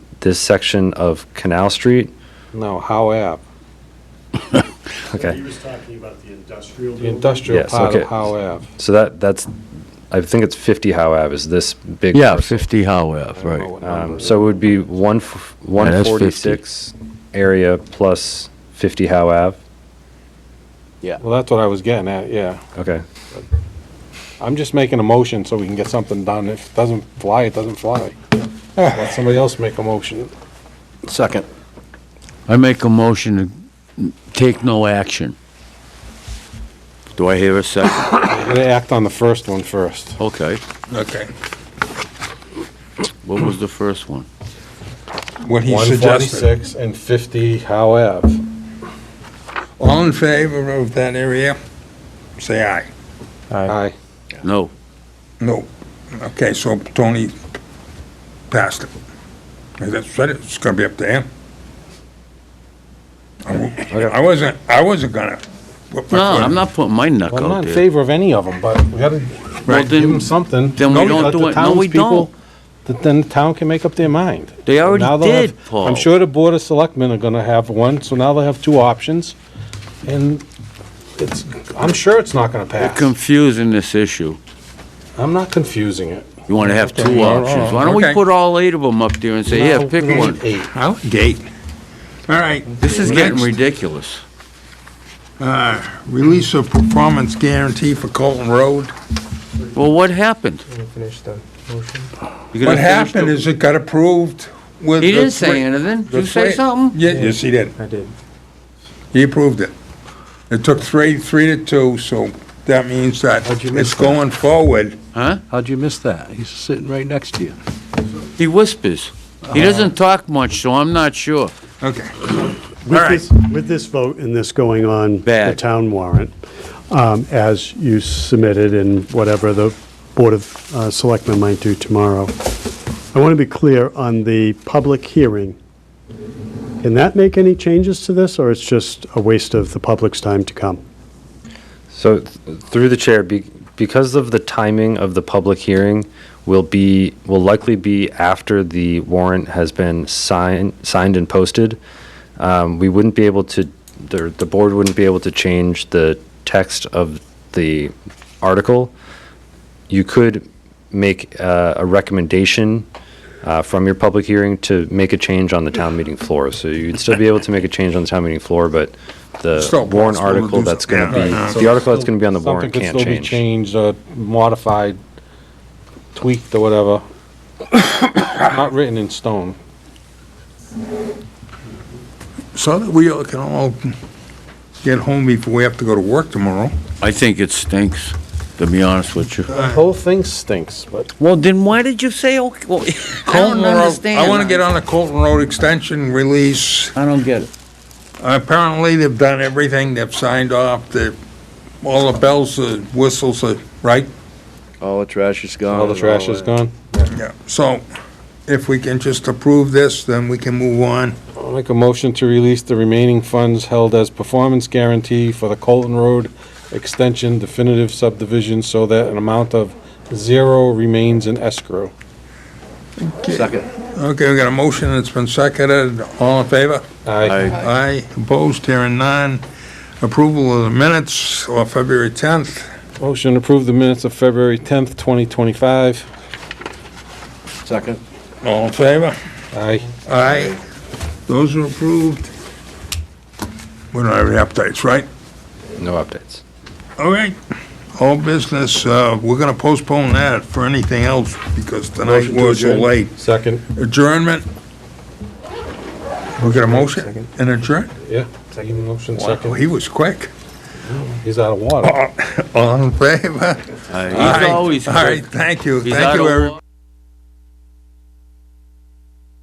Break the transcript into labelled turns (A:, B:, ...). A: this section of Canal Street.
B: No, Howe Ave,
A: Okay,
C: He was talking about the industrial
B: the
C: building.
B: industrial
A: Yes,
B: part of
A: okay.
B: Howe Ave.
A: so that, that's, I think it's 50 Howe Ave is this big.
D: Yeah,
A: parcel.
D: 50 Howe Ave,
B: I don't know
D: right.
B: what number
A: Um,
B: it
A: So it
B: is.
A: would be one f-
D: Yeah, that's 50.
A: 146 area plus 50 Howe Ave.
B: Well, that's what I was getting at, yeah.
A: Okay,
B: I'm just making a motion so we can get something done. If it doesn't fly, it doesn't fly. Let somebody else make a motion.
E: Second.
D: I make a motion to take no action.
E: Do I hear a second?
B: We're gonna act on the first one first.
D: Okay.
F: Okay.
D: What was the first one?
F: What he
B: One
F: suggested.
B: forty-six and fifty Howe Ave.
F: All in favor of that area? Say aye.
B: Aye.
D: No.
F: No. Okay, so Tony passed it. And That's what it's gonna be up to him. I wa- I wasn't, I wasn't gonna. put my
D: No,
F: foot
D: I'm
F: in.
D: not putting my neck
B: Well, I'm
D: out
B: not in
D: there.
B: favor of any of them, but we gotta
D: Well,
B: give them
D: then,
B: something.
D: then we
B: No,
D: don't
B: let
D: do
B: the
D: it. No, we
B: townspeople-
D: don't.
B: th- Then the town can make up their mind.
D: They already
B: Now they'll have-
D: did, Paul.
B: I'm sure the Board of Selectmen are gonna have one, so now they'll have two options, and it's, I'm sure it's not gonna
D: You're
B: pass.
D: confusing this issue.
B: I'm not confusing it.
D: You want to have two
F: oh,
D: options. Why don't we
F: okay.
D: put all eight of them up there and say,
B: Now
D: yeah, pick
B: we need
D: one?
B: Eight.
F: Out date. All right.
D: This is getting
F: Next,
D: ridiculous.
F: Release of performance guarantee for Colton Road.
D: Well, what happened? You
F: What
D: gonna finish
F: happened
D: the-
F: is it got approved with.
D: He
F: the
D: didn't say
F: three-
D: anything. Did you
F: the
D: say
F: three-
D: something?
F: Ye- Yes, he did.
G: I did.
F: He approved it. It took three, three to two, so that means that
G: How'd you miss
F: it's going forward.
D: Huh?
G: How'd you miss that? He's sitting right next to you. Oh.
D: He whispers. He doesn't talk much, so I'm not sure.
F: Okay.
D: All
C: With
D: right.
C: this, with this vote and this going on. The
D: Bad.
C: town warrant, um, as you submitted and whatever the Board of uh, Selectmen might do tomorrow. I want to be clear on the public hearing. Can that make any changes to this, or it's just a waste of the public's time to come?
A: so th- through the chair, be- because of the timing of the public hearing will be, will likely be after the warrant has been signed, signed and posted, um, we wouldn't be able to, the, the board wouldn't be able to change the text of the article. You could make uh, a recommendation uh, from your public hearing to make a change on the town meeting floor. So you'd still be able to make a change on the town meeting floor, but the
F: Still possible
A: warrant
F: to
A: article
F: do
A: that's
F: so-
A: going to
F: yeah,
A: be,
F: right.
A: Uh, the article that's going to be on the warrant
B: Something
A: can't
B: could still be
A: change.
B: changed, or modified, tweaked, or whatever. Not written in stone.
F: So that we all can all get home before we have to go to work tomorrow.
D: I think it stinks, to be honest with you.
B: The whole thing stinks, but
D: Well, then why did you say, okay, well, I
F: Colton
D: don't
F: Road-
D: understand.
F: I want to get on the Colton Road extension release.
D: I don't get it.
F: Apparently, they've done everything, they've signed off, the, all the bells, the whistles, are right?
E: All the trash is gone.
B: all the trash is gone.
F: Yeah. So if we can just approve this, then we can move on.
B: I'll make a motion to release the remaining funds held as performance guarantee for the Colton Road Extension definitive subdivision so that an amount of zero remains in escrow.
E: Second.
F: Okay, we got a motion, it's been seconded, all in favor?
B: Aye.
F: Aye, opposed, hearing none. Approval of the minutes of February 10th.
B: Motion to approve the minutes of February 10th, 2025.
E: Second.
F: All in favor?
B: Aye.
F: Aye, those are approved. We don't have any updates, right?
A: No updates.
F: All right, all business, uh, we're gonna postpone that for anything else because tonight
B: Motion to
F: was so
B: adjourn.
F: late.
B: Second.
F: Adjournment? We got a motion and adjourn?
B: Yeah. Second motion,
F: Wow,
B: second.
F: he was quick.
B: He's out of water.
F: All in favor?
D: He's
F: All right.
D: always
F: All right, thank you.
D: He's
F: Thank
D: out
F: you,
D: of
F: everybody.
D: order.